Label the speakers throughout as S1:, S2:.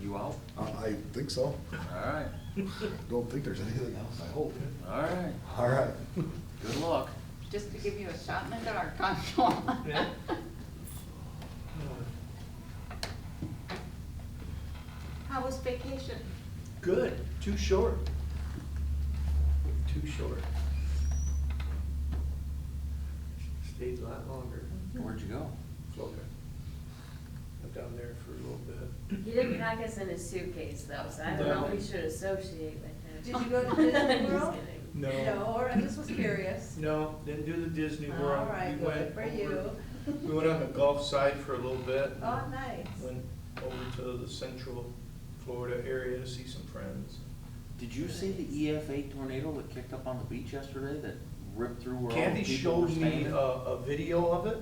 S1: you out?
S2: I, Uh, I think so.
S1: All right,
S2: Don't think there's anything else, I hope.
S1: all right,
S2: All right.
S1: good luck.
S3: Just to give you a shot in the dark, that's all.
S4: Yeah.
S3: How was vacation?
S4: Good, too short. Too short. Stayed a lot longer.
S1: Where'd you go?
S4: Florida. I'm down there for a little bit.
S5: He didn't pack us in his suitcase though, so I don't know if we
S4: No.
S5: should associate with him.
S3: Did you go to Disney
S5: Just
S3: World?
S5: kidding.
S4: No,
S3: or I just was curious.
S4: no, didn't do the Disney World.
S3: All right,
S4: We went
S3: good for you.
S4: over- We went on the Gulf side for a little bit.
S3: Oh, nice.
S4: Went over to the central Florida area to see some friends.
S1: Did you see the EF eight tornado that kicked up on the beach yesterday that ripped through where all the
S4: Candy
S1: people were
S4: showed me uh,
S1: standing?
S4: a, a video of it.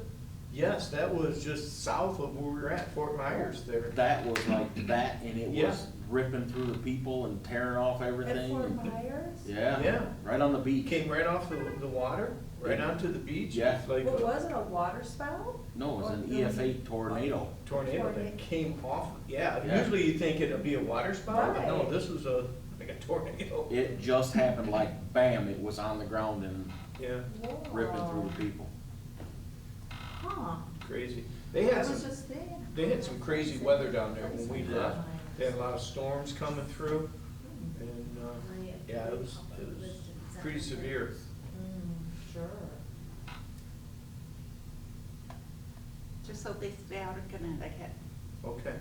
S4: Yes, that was just south of where we were at, Fort Myers there.
S1: That was like that and it
S4: Yeah.
S1: was ripping through the people and tearing off everything.
S3: Myers?
S1: Yeah,
S4: Yeah.
S1: right on the
S4: It
S1: beach.
S4: came right off the, the water, right onto the beach.
S1: Yeah.
S4: It's Like
S3: Well,
S4: a
S3: it a waterspout?
S1: No, it was an E
S3: Oh, it was
S1: EF eight tornado.
S4: tornado
S3: Tornado.
S4: that came off, yeah.
S1: Yeah.
S4: Usually you think it'd be a water spout, but no,
S3: Right.
S4: this was a, like a tornado.
S1: It just happened like bam, it was on the ground and
S4: Yeah,
S1: ripping through the people.
S3: Huh,
S4: crazy. They
S3: I
S4: had
S3: was
S4: some,
S3: just there.
S4: they had some crazy weather down there when we
S1: Yeah.
S4: left. They had a lot of storms coming through and, uh,
S3: Oh,
S4: yeah, it was, it was pretty severe.
S3: Mm, Sure.
S6: Just so they stay out of Connecticut.
S4: Okay.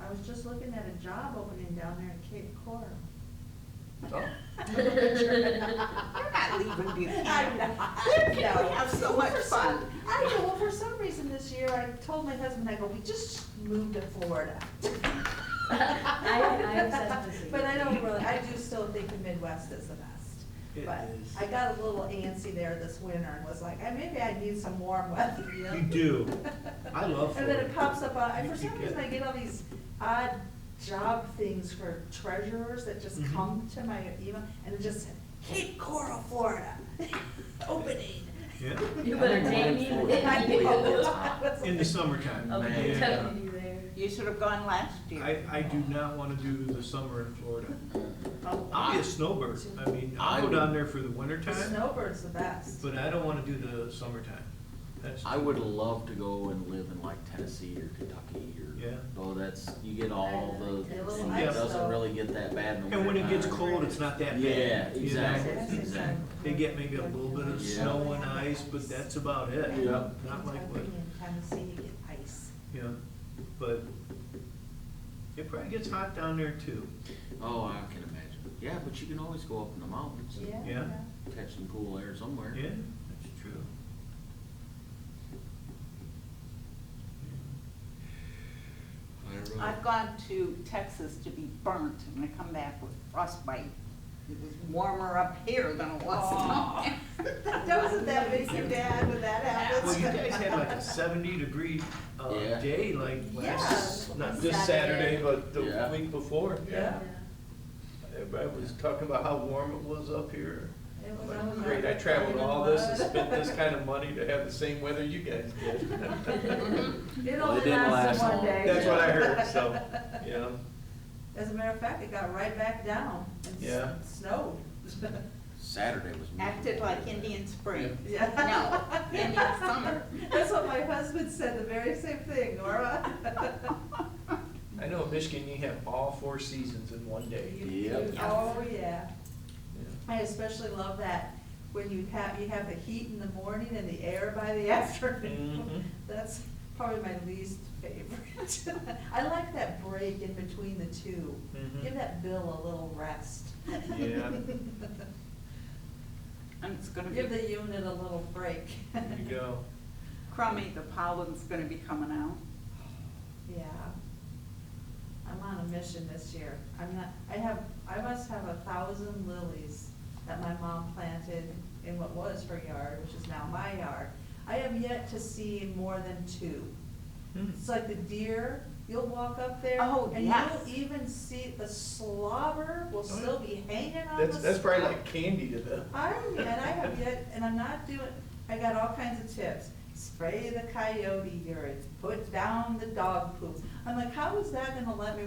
S3: I was just looking at a job opening down there in Cape Coral.
S4: Oh.
S6: You're not leaving Buchanan.
S3: I'm not.
S6: Where can we
S3: No.
S6: have so much
S3: For some-
S6: fun?
S3: I know, well, for some reason this year, I told my husband, I go, we just moved to Florida.
S5: I- I am such a city.
S3: But I don't really, I do still think the Midwest is the best.
S4: It
S3: But
S4: is.
S3: I got a little antsy there this winter and was like, "Eh, maybe I need some warm weather.
S4: You do. I love
S3: And then it
S4: Florida.
S3: pops up, on- and
S4: You
S3: for some
S4: could
S3: reason
S4: get-
S3: I get all these odd job things for treasurers that just
S4: Mhm.
S7: Mm-hmm.
S3: come to my email and it just, Cape Coral, Florida, opening.
S7: Yeah,
S5: You better date me.
S3: I know.
S7: in the summertime.
S5: I'll be
S7: yeah.
S5: telling you Oh, there.
S6: You should have gone last year.
S7: I, I do not want to do the summer in Florida. I'll be a snowbird. I mean, I'll go down there for the
S3: The
S7: wintertime,
S3: snowbird's the best.
S7: but I don't want to do the summertime. That's,
S1: I would love to go and live in like Tennessee or Kentucky or,
S7: Yeah.
S1: though that's, you get all the,
S3: Yeah, a little
S1: it
S3: ice
S1: doesn't
S3: though.
S1: really get that bad in the
S7: and when it gets
S1: wintertime.
S7: cold, it's not that bad.
S1: Yeah,
S7: you know?
S1: exactly, exactly.
S7: They get maybe a little bit of
S1: Yeah.
S7: snow and ice, but that's about it.
S1: Yeah.
S7: Not like what,
S3: Kentucky and Tennessee, you get ice.
S7: yeah, but it probably gets hot down there too.
S1: Oh, I can imagine. Yeah, but you can always go up in the mountains
S3: Yeah.
S1: and
S7: Yeah.
S1: catch some cool air somewhere.
S7: Yeah, that's true.
S1: I don't know.
S6: I've gone to Texas to be burnt and I come back with frostbite. It was warmer up here than it was
S3: Aw.
S6: down there.
S3: That wasn't that big, your dad, when that happens.
S7: Well, you guys had like a seventy degree, uh,
S1: Yeah.
S7: day like last,
S3: Yeah.
S4: Not this Saturday, but the
S1: Yeah.
S4: week before.
S3: Yeah.
S4: Everybody was talking about how warm it was up here.
S3: It
S4: I'm
S3: was
S4: like,
S3: unreal.
S4: Great, I traveled all this and
S3: It
S4: spent this
S3: was.
S4: kind of money to have the same weather you guys did.
S3: It
S1: Well, it
S3: only
S1: didn't last
S3: lasted one
S1: long.
S3: day.
S4: That's what I heard, so, yeah.
S3: As a matter of fact, it got right back down. and s-
S4: Yeah.
S3: Snowed.
S1: Saturday was.
S6: Acted like Indian Spring.
S3: Yeah.
S6: No, Indian Summer.
S3: That's what my husband said, the very same thing, Nora.
S4: I know in Michigan, you have all four seasons in one day.
S1: Yep.
S3: Oh, yeah.
S4: Yeah.
S3: I especially love that when you have, you have the heat in the morning and the air by the afternoon.
S4: Mhm.
S3: That's probably my least favorite. I like that break in between the two.
S4: Mhm.
S3: Give that bill a little rest.
S4: Yeah.
S6: And it's gonna
S3: Give
S6: be
S3: the unit a little break.
S4: There you go.
S6: crummy, the pollen's gonna be coming out.
S3: Yeah. I'm on a mission this year. I'm not, I have, I must have a thousand lilies that my mom planted in what was her yard, which is now my yard. I have yet to see more than two.
S4: Hmm.
S3: It's like the deer, you'll walk up there.
S6: Oh, yes.
S3: And you'll even see the slobber will
S4: Oh, yeah.
S3: still be hanging on the.
S4: That's, that's probably
S3: stalk.
S4: like candy to them.
S3: I, and I have yet, and I'm not doing, I got all kinds of tips. Spray the coyote urine, put down the dog poop. I'm like, how is that gonna let me